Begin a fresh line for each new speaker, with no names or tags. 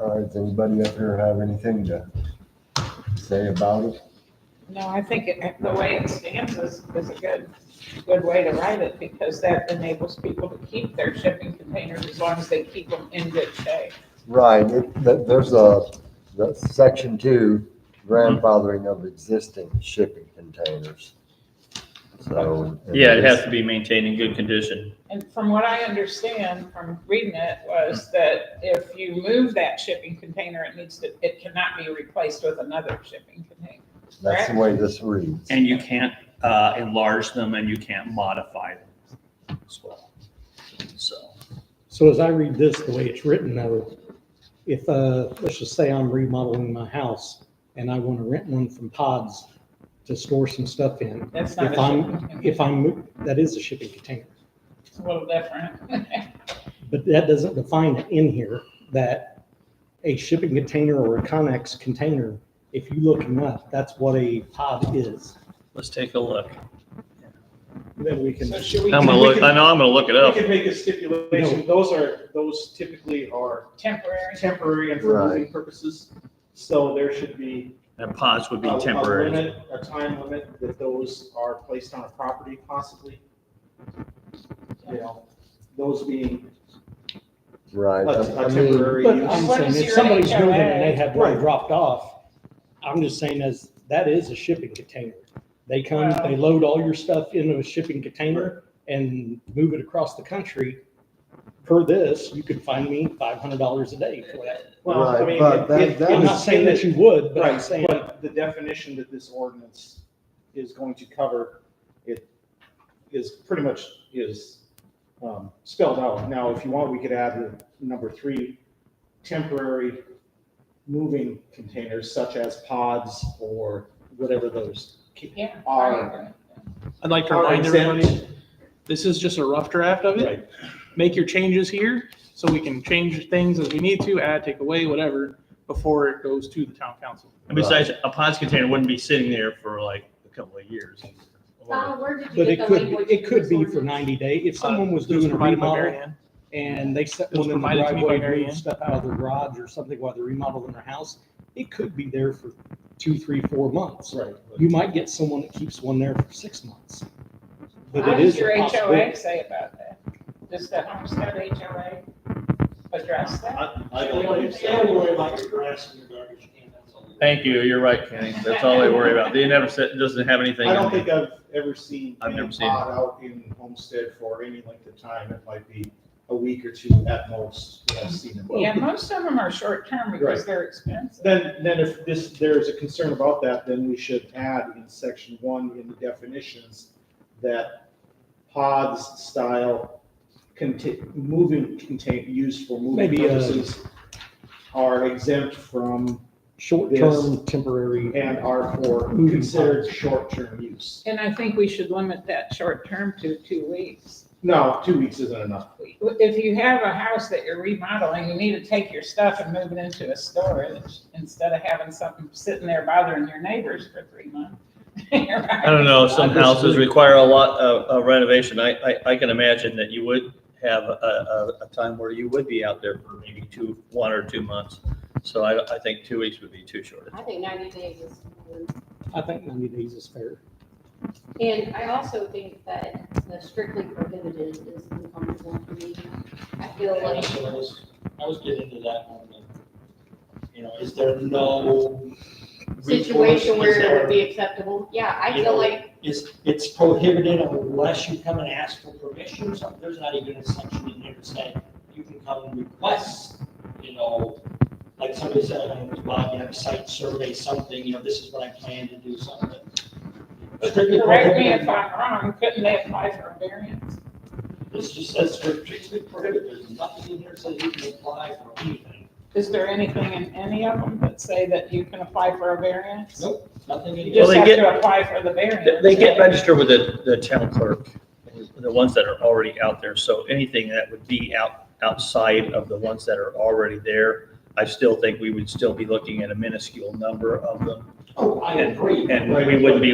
All right, does anybody up here have anything to say about it?
No, I think it- the way it stands is, is a good, good way to write it because that enables people to keep their shipping containers as long as they keep them in good shape.
Right, it- th- there's a, the section two, grandfathering of existing shipping containers. So.
Yeah, it has to be maintained in good condition.
And from what I understand from reading it was that if you move that shipping container, it needs to, it cannot be replaced with another shipping container.
That's the way this reads.
And you can't uh, enlarge them and you can't modify them as well. So,
So as I read this, the way it's written though, if, uh, let's just say I'm remodeling my house and I want to rent one from Pods to store some stuff in,
That's not a
if I'm,
shipping container.
if I'm, that is a shipping container.
It's a little different.
But that doesn't define it in here that a shipping container or a Connex container, if you look them up, that's what a pod is.
let's take a look.
Then we can.
So should we
I'm gonna look, I know I'm gonna look it
We
up.
can make a stipulation, those are, those typically are
temporary?
temporary and for moving
Right.
purposes. So there should be.
And pods would
a-
be
a
temporary.
limit, A time limit that those are placed on a property possibly. You know, those being a
Right. I- I
a
mean,
temporary
But I'm
use.
What
saying
is
if
your
somebody's moving and they
HOA?
have one
Right.
dropped off, I'm just saying as, that is a shipping container. They come,
Well-
they load all your stuff into a shipping container and move it across the country. Per this, you could find me five hundred dollars a day for that.
Well, I
Right,
mean,
but that-
it- it-
that
I'm not
was-
saying that you would, but I'm
Right,
saying,
but the definition that this ordinance is going to cover, it is pretty much is um, spelled out. Now, if you want, we could add the number three, temporary moving containers such as pods or whatever those ca-
Yeah.
are.
I'd like to
are
remind everybody,
exempt.
this is just a rough draft of it.
Right,
Make your changes here so we can change things as we need to, add, take away, whatever, before it goes to the town council.
And besides, a pods container wouldldn't be sitting there for like a couple of years.
Donna, where did you
but
get
it
the
could,
language?
it could
for
be
this
for
ordinance?
ninety day. If someone was
It was
doing a
provided by Mary
remodel
Ann.
and they set
It was
one in the
provided to me by
driveway,
Mary
moved
Ann.
stuff out of their garage or something while they're remodeling their house, it could be there for two, three, four months.
right.
You might get someone that keeps one there for six months. But
What
it
does
is
your
a
HOA
possibility.
say about that? Does the Homestead HOA address that?
I I don't believe so.
Thank you, you're right, Kenny. That's all they worry about. They never said, doesn't have anything.
I
in
don't
there.
think I've ever seen
I've
any
never seen
pod out in Homestead for any length of time. It might be a week or two at most that I've seen it.
Yeah, most of them are short-term because
Right.
they're expensive.
Then, then if this, there's a concern about that, then we should add in section one in the definitions that pods style conti- moving contain, used for moving
Maybe, uh,
purposes are exempt from
Short-term, temporary.
and are for
Moving
considered short-term use.
And I think we should limit that short-term to two weeks.
No, two weeks isn't enough.
If you have a house that you're remodeling, you need to take your stuff and move it into a storage instead of having something sitting there bothering your neighbors for three months.
I don't know, some
I
houses
disagree.
require a lot of of renovation. I, I, I can imagine that you would have a, a, a time where you would be out there for maybe two, one or two months. So I, I think two weeks would be too short.
I think ninety days is, fine.
I think ninety days is fair.
and I also think that the strictly prohibited is uncomfortable for me. I feel
I
like,
was, I was getting to that moment. You know, is there no?
situation
recourse? Is
where it
there-
would be acceptable, yeah, I
You
feel
know,
like,
Is, it's prohibited unless you come and ask for permission, so there's not even a section in here to say, you can come and request, you know, like somebody said, I don't know, Bob, you have a site survey, something, you know, this is what I plan to do, something. Strictly
Correct me if
prohibited,
I'm wrong, couldn't they apply for a variance?
this just says strictly prohibited, there's nothing in here that says you can apply for anything,
Is there anything in any of them that say that you can apply for a variance?
Nope. nothing in
You
here.
Well,
just
they
have
get-
to apply for the variance.
They get registered with the, the town clerk, the ones that are already out there. So anything that would be out, outside of the ones that are already there, I still think we would still be looking at a minuscule number of them.
Oh, I agree.
And we wouldn't be